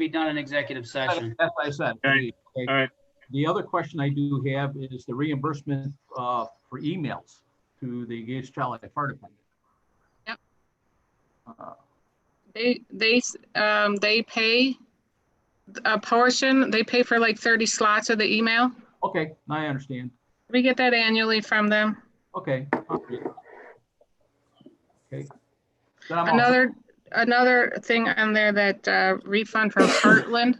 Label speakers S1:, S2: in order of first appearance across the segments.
S1: be done in executive session.
S2: That's what I said.
S3: Okay. All right.
S2: The other question I do have is the reimbursement uh, for emails to the Gage Child Fire Department.
S4: Yep.
S2: Uh,
S4: They, they, s- um, they pay a portion, they pay for like thirty slots of the email.
S2: Okay, now I understand.
S4: We get that annually from them.
S2: Okay. all right. Okay. Then I'm all set.
S4: Another, another thing on there that uh, refund from Heartland,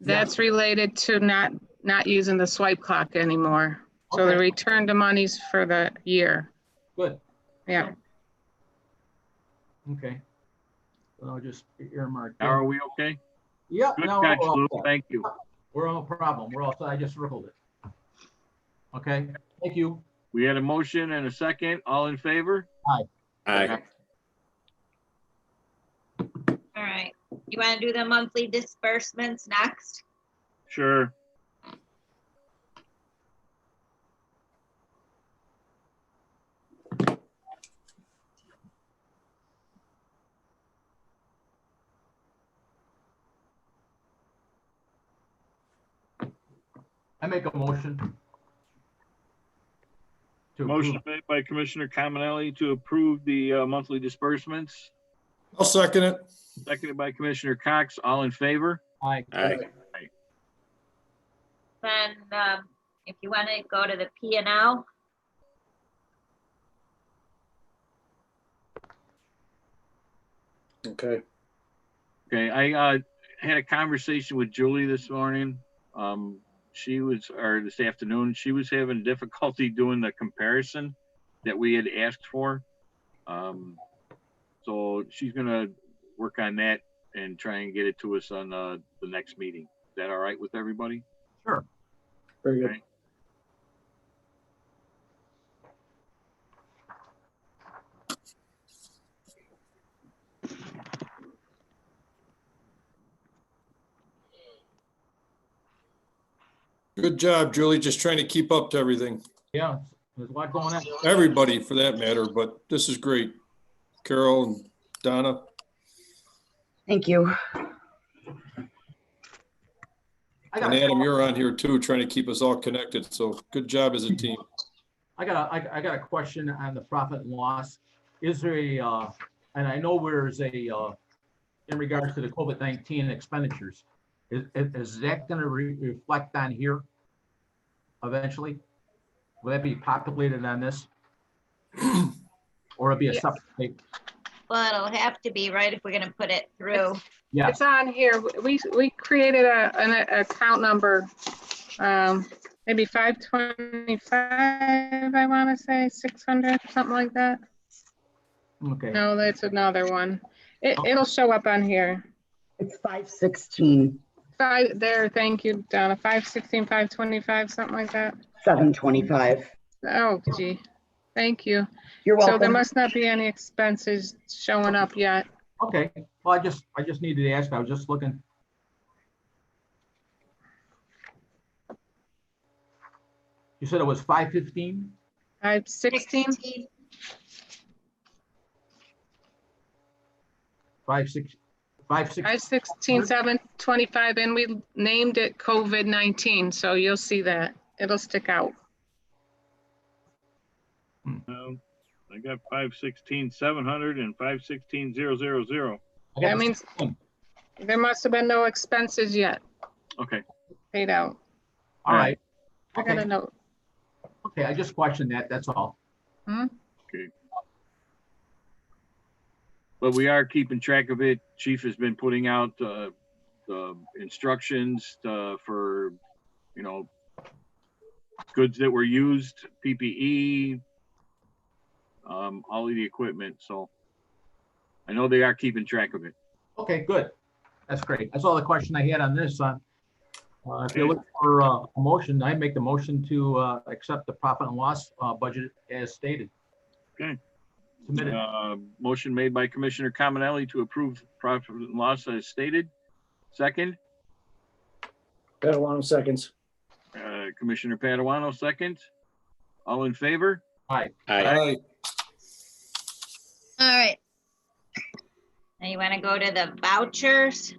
S4: that's related to not, not using the swipe clock anymore. So the
S2: Okay.
S4: return to monies for the year,
S2: Good,
S4: yeah.
S2: okay. So I'll just earmark.
S3: Now, are we okay?
S2: Yeah,
S3: Good
S2: no,
S3: catch,
S2: we're all
S3: Lou.
S2: set.
S3: Thank you.
S2: we're all problem. We're all, set. I just circled it. Okay, thank you.
S3: We had a motion and a second. All in favor?
S5: Aye.
S6: All right, you want to do the monthly disbursements next?
S3: Sure.
S2: I make a motion. to approve.
S3: Motion made by Commissioner Caminelli to approve the uh, monthly disbursements,
S5: I'll second it.
S3: seconded by Commissioner Cox. All in favor?
S2: Aye.
S5: Aye.
S6: Then, um, if you want to go to the P and L,
S5: Okay.
S3: Okay, I uh, had a conversation with Julie this morning. Um, she was, or this afternoon, she was having difficulty doing the comparison that we had asked for. Um, so she's gonna work on that and try and get it to us on uh, the next meeting. Is that all right with everybody?
S2: Sure.
S5: Very good. Good job, Julie. Just trying to keep up to everything.
S2: Yeah, there's a lot going on.
S5: Everybody for that matter, but this is great. Carol and Donna.
S7: Thank you.
S2: I got,
S5: And Adam,
S2: a-
S5: you're on here too, trying to keep us all connected. So good job as a team.
S2: I got, a- I, I got a question on the profit and loss. Is there a, uh, and I know there's a, uh, in regards to the COVID-19 expenditures, is, is- is that gonna re- reflect on here eventually? Will that be populated on this? Or it'll be a
S4: Yes.
S2: separate,
S6: well, it'll have to be, right, if we're going to put it through.
S2: yeah,
S4: It's on here. We, we created a, an account number, um, maybe five twenty-five, I want to say, six hundred, something like that.
S2: okay.
S4: No, that's another one. It, it'll show up on here.
S7: It's five sixteen,
S4: Five, there, thank you, Donna. Five sixteen, five twenty-five, something like that.
S7: seven twenty-five.
S4: Oh gee, thank you.
S7: You're
S4: So there
S7: welcome.
S4: must not be any expenses showing up yet.
S2: Okay, well, I just, I just needed to ask, I was just looking. You said it was five fifteen?
S4: Five sixteen,
S6: 16?
S2: Five six, five six,
S4: five sixteen, seven twenty-five, and we named it COVID nineteen, so you'll see that. It'll stick out.
S3: No. I got five sixteen seven hundred and five sixteen zero zero zero.
S2: I got the-
S4: That means there must have been no expenses yet
S3: Okay,
S4: paid out.
S2: all right.
S4: I got a
S2: Okay,
S4: note.
S2: okay, I just questioned that, that's all.
S3: but we are keeping track of it. Chief has been putting out uh, the instructions uh, for, you know, goods that were used, PPE, um, all of the equipment. So I know they are keeping track of it.
S2: Okay, good. That's great. That's all the question I had on this. uh, uh, If you look for uh, a motion, I make the motion to uh, accept the profit and loss uh, budget as stated.
S3: Okay.
S2: Submitted.
S3: Uh, motion made by Commissioner Caminelli to approve profit and loss as stated. Second,
S8: Catalano seconds.
S3: uh, Commissioner Paduano, second. All in favor?
S5: All
S9: Aye.
S5: right.
S6: All right. Now you want to go to the vouchers?